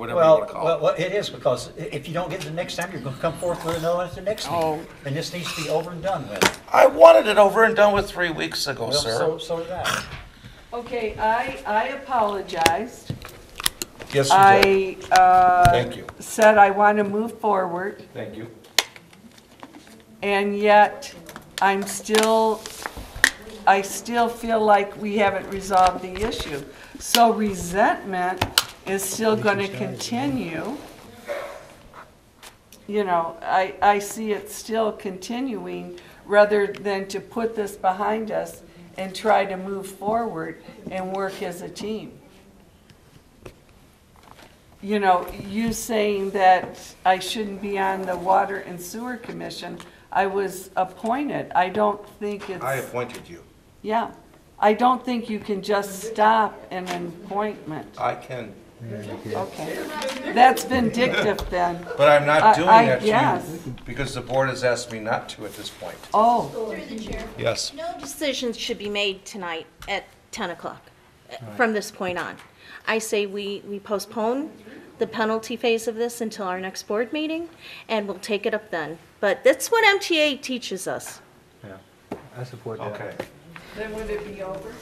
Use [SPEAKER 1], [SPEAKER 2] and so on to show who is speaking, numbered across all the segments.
[SPEAKER 1] whatever you
[SPEAKER 2] Well,
[SPEAKER 1] want to
[SPEAKER 2] well,
[SPEAKER 1] call
[SPEAKER 2] well, it is, because i- if you don't get it the next time, you're gonna come forth with another one at the next
[SPEAKER 1] Oh.
[SPEAKER 2] meeting. And this needs to be over and done with.
[SPEAKER 1] it. I wanted it over and done with three weeks ago,
[SPEAKER 2] Well,
[SPEAKER 1] sir.
[SPEAKER 2] so, so did I.
[SPEAKER 3] Okay, I, I apologized.
[SPEAKER 1] Yes, you did.
[SPEAKER 3] I uh,
[SPEAKER 1] Thank you.
[SPEAKER 3] said I want to move forward,
[SPEAKER 1] Thank you.
[SPEAKER 3] and yet I'm still, I still feel like we haven't resolved the issue. So resentment is still going to continue. You know, I, I see it still continuing rather than to put this behind us and try to move forward and work as a team. you know, you saying that I shouldn't be on the Water and Sewer Commission, I was appointed. I don't think
[SPEAKER 1] I
[SPEAKER 3] it's,
[SPEAKER 1] appointed you.
[SPEAKER 3] yeah. I don't think you can just stop an appointment.
[SPEAKER 1] I can,
[SPEAKER 3] Okay. That's vindictive then.
[SPEAKER 1] but I'm
[SPEAKER 3] I-
[SPEAKER 1] not doing
[SPEAKER 3] I
[SPEAKER 1] that
[SPEAKER 3] guess.
[SPEAKER 1] to you because the board has asked me not to at this point.
[SPEAKER 3] Oh,
[SPEAKER 4] Through the chair.
[SPEAKER 1] Yes.
[SPEAKER 4] No decisions should be made tonight at 10 o'clock, uh, from this point on. I say we we postpone the penalty phase of this until our next board meeting, and we'll take it up then. But that's what MTA teaches us.
[SPEAKER 5] I support that.
[SPEAKER 1] Okay.
[SPEAKER 3] then would it be over?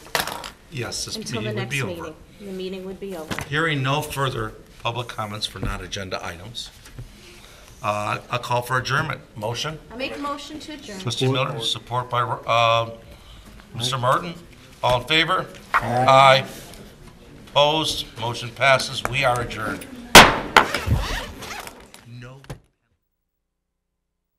[SPEAKER 1] Yes, this
[SPEAKER 4] Until the next meeting. The meeting would be over.
[SPEAKER 1] Hearing no further public comments for non-agenda items, uh, a call for adjournment. Motion?
[SPEAKER 4] I make a motion to adjourn.
[SPEAKER 1] Trustee Miller, support by uh, Mr. Martin. All in favor? Aye. Opposed? Motion passes. We are adjourned.